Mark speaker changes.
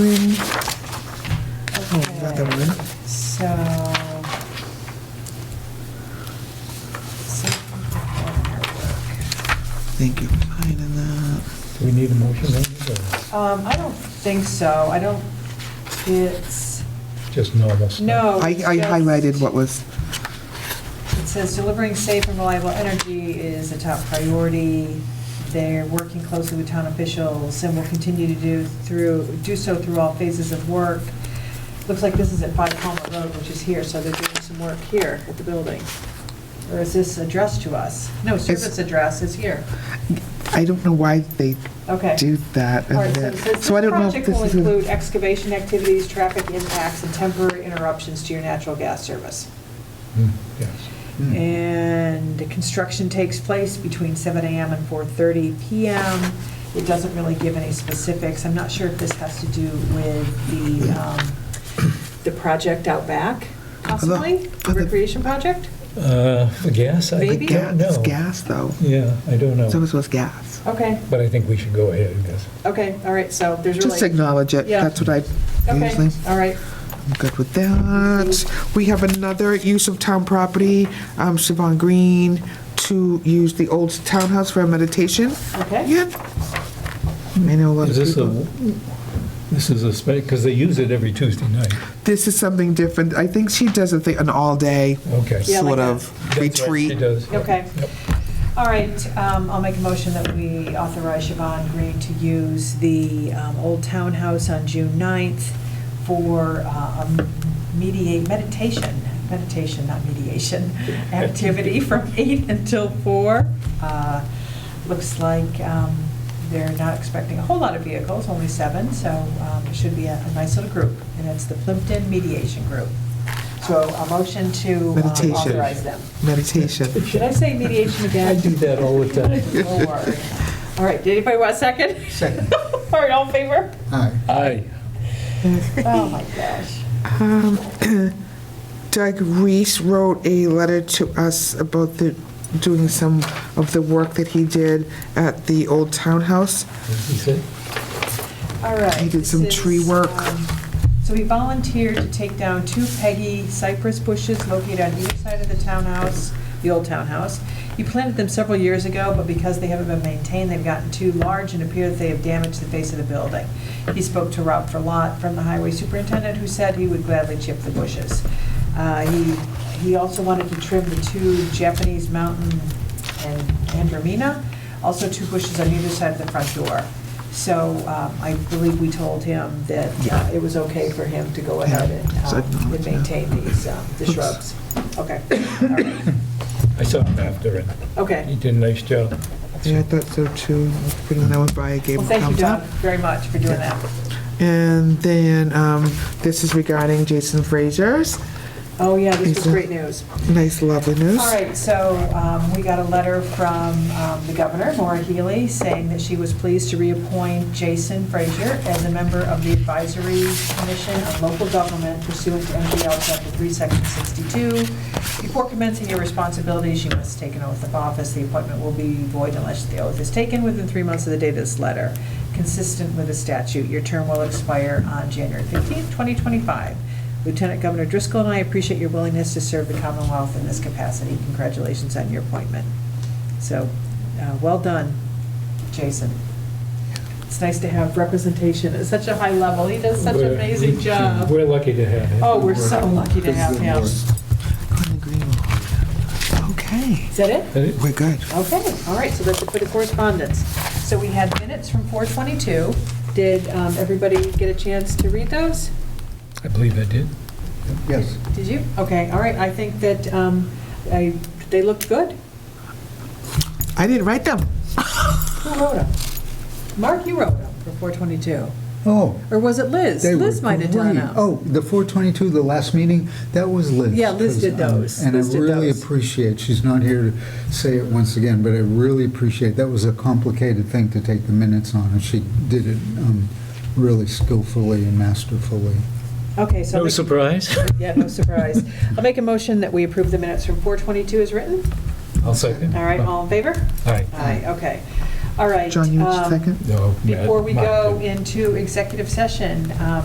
Speaker 1: Another one.
Speaker 2: So. Safety performance
Speaker 1: Thank you for finding that.
Speaker 3: Do we need a motion on this,
Speaker 2: work. Um, I don't think so, I don't, it's,
Speaker 3: or just normal stuff?
Speaker 2: no.
Speaker 1: I
Speaker 2: it's
Speaker 1: I
Speaker 2: just-
Speaker 1: highlighted what was,
Speaker 2: It says delivering safe and reliable energy is a top priority. They're working closely with town officials and will continue to do through, do so through all phases of work. Looks like this is at Five Palmer Road, which is here, so they're doing some work here at the building. Or is this addressed to us? No, service address is here.
Speaker 1: I don't know why they
Speaker 2: Okay.
Speaker 1: do that.
Speaker 2: All
Speaker 1: and
Speaker 2: right, so
Speaker 1: that.
Speaker 2: it says, this
Speaker 1: So I don't know if
Speaker 2: project
Speaker 1: this
Speaker 2: will
Speaker 1: is, a-
Speaker 2: include excavation activities, traffic impacts, and temporary interruptions to your natural gas service.
Speaker 3: Hmm, Yes.
Speaker 1: Mm.
Speaker 2: And the construction takes place between 7 AM and 4:30 PM. It doesn't really give any specifics. I'm not sure if this has to do with the, um, the project out back, possibly? The
Speaker 1: for the-
Speaker 2: Recreation project?
Speaker 3: Uh, For gas, I
Speaker 2: Maybe.
Speaker 3: don't
Speaker 1: gas, it's
Speaker 3: know.
Speaker 1: gas, though.
Speaker 3: Yeah, I don't know,
Speaker 1: Service was gas.
Speaker 2: Okay,
Speaker 3: but I think we should go ahead and guess.
Speaker 2: okay, all right, so there's really.
Speaker 1: Just acknowledge it.
Speaker 2: Yeah.
Speaker 1: That's what I usually,
Speaker 2: Okay, all right.
Speaker 1: I'm good with that. We have another use of town property, um, Siobhan Green, to use the old townhouse for a meditation.
Speaker 2: Okay,
Speaker 1: Yeah. I know a lot of
Speaker 3: Is this a,
Speaker 1: people.
Speaker 3: this is a spec, because they use it every Tuesday night.
Speaker 1: This is something different. I think she does a thing, an all-day
Speaker 3: Okay.
Speaker 2: Yeah,
Speaker 1: sort
Speaker 2: like that.
Speaker 1: of
Speaker 3: That's right,
Speaker 1: retreat.
Speaker 3: She does. yeah.
Speaker 2: okay.
Speaker 3: Yep.
Speaker 2: All right, um, I'll make a motion that we authorize Siobhan Green to use the um, old townhouse on June 9th for uh, a mediate, meditation, meditation, not mediation, activity from 8 until 4. Uh, Looks like um, they're not expecting a whole lot of vehicles, only seven, so um, it should be a a nice little group. And it's the Plimpton Mediation Group. So a motion to um,
Speaker 1: Meditation.
Speaker 2: authorize them.
Speaker 1: Meditation.
Speaker 2: Should I say mediation again?
Speaker 3: I do that all the time.
Speaker 2: Don't worry. All right, did anybody want a second?
Speaker 4: Second.
Speaker 2: All right, all in favor?
Speaker 4: Aye.
Speaker 3: Aye.
Speaker 2: Oh, my gosh.
Speaker 1: Um, Doug Reese wrote a letter to us about the, doing some of the work that he did at the old townhouse.
Speaker 3: He said,
Speaker 2: All right.
Speaker 1: He did
Speaker 2: this
Speaker 1: some tree
Speaker 2: is,
Speaker 1: work.
Speaker 2: um, So he volunteered to take down two Peggy cypress bushes located on either side of the townhouse, the old townhouse. He planted them several years ago, but because they haven't been maintained, they've gotten too large and appear that they have damaged the face of the building. He spoke to Rob Verlot from the highway superintendent, who said he would gladly chip the bushes. Uh, He, he also wanted to trim the two Japanese mountain and andromina, also two bushes on either side of the front door. So um, I believe we told him that uh, it was okay for him to go ahead and
Speaker 1: Yeah, so
Speaker 2: um,
Speaker 1: acknowledge
Speaker 2: and
Speaker 1: that.
Speaker 2: maintain these, um, the
Speaker 1: Oops.
Speaker 2: shrubs. Okay, all right,
Speaker 3: I saw him after it. He
Speaker 2: okay.
Speaker 3: did a nice job.
Speaker 1: Yeah, I thought so too. Put that one by, I gave
Speaker 2: Well,
Speaker 1: him
Speaker 2: thank you,
Speaker 1: thumbs
Speaker 2: Don,
Speaker 1: up.
Speaker 2: very much for doing that.
Speaker 1: And then, um, this is regarding Jason Frazier's.
Speaker 2: Oh, yeah, this was
Speaker 1: Lisa.
Speaker 2: great news.
Speaker 1: Nice, lovely news.
Speaker 2: All right, so um, we got a letter from um, the governor, Maura Healy, saying that she was pleased to reappoint Jason Frazier as a member of the Advisory Commission on Local Government pursuant to MGL Chapter 3, Section 62. Before commencing your responsibilities, you must take an oath of office. The appointment will be void unless the oath is taken within three months of the date of this letter. Consistent with the statute, your term will expire on January 15, 2025. Lieutenant Governor Driscoll and I appreciate your willingness to serve the Commonwealth in this capacity. Congratulations on your appointment. So, uh, well done, Jason. It's nice to have representation at such a high level. He does such an
Speaker 3: We're-
Speaker 2: amazing job.
Speaker 3: We're lucky to have him.
Speaker 2: Oh, we're so lucky to have him. Is
Speaker 1: Glenn Greenwald. Okay,
Speaker 2: that it?
Speaker 3: Is it?
Speaker 1: we're good.
Speaker 2: Okay, all right, so that's it for the correspondence. So we had minutes from 4:22. Did um, everybody get a chance to read those?
Speaker 3: I believe I did.
Speaker 4: Yes.
Speaker 2: Did you? Okay, all right, I think that um, I- they looked good.
Speaker 1: I didn't write them.
Speaker 2: Who wrote them? Mark, you wrote them for 422.
Speaker 4: Oh.
Speaker 2: Or was it Liz?
Speaker 4: they were
Speaker 2: Liz might have done
Speaker 4: great.
Speaker 2: them.
Speaker 4: Oh, the 422, the last meeting, that was Liz.
Speaker 2: Yeah, Liz did those.
Speaker 4: And I
Speaker 2: Liz did
Speaker 4: really
Speaker 2: those.
Speaker 4: appreciate, she's not here to say it once again, but I really appreciate, that was a complicated thing to take the minutes on, and she did it um, really skillfully and masterfully.
Speaker 2: Okay, so, I'll
Speaker 3: No
Speaker 2: make-
Speaker 3: surprise.
Speaker 2: yeah, no surprise. I'll make a motion that we approve the minutes from 422 as written.
Speaker 3: I'll second.
Speaker 2: All right, all in favor?
Speaker 3: All right.
Speaker 2: Aye, okay. All right.
Speaker 1: John, you
Speaker 2: um,
Speaker 1: second?
Speaker 3: No, Matt-
Speaker 2: Before we
Speaker 3: Matt
Speaker 2: go
Speaker 3: did.
Speaker 2: into executive session, um,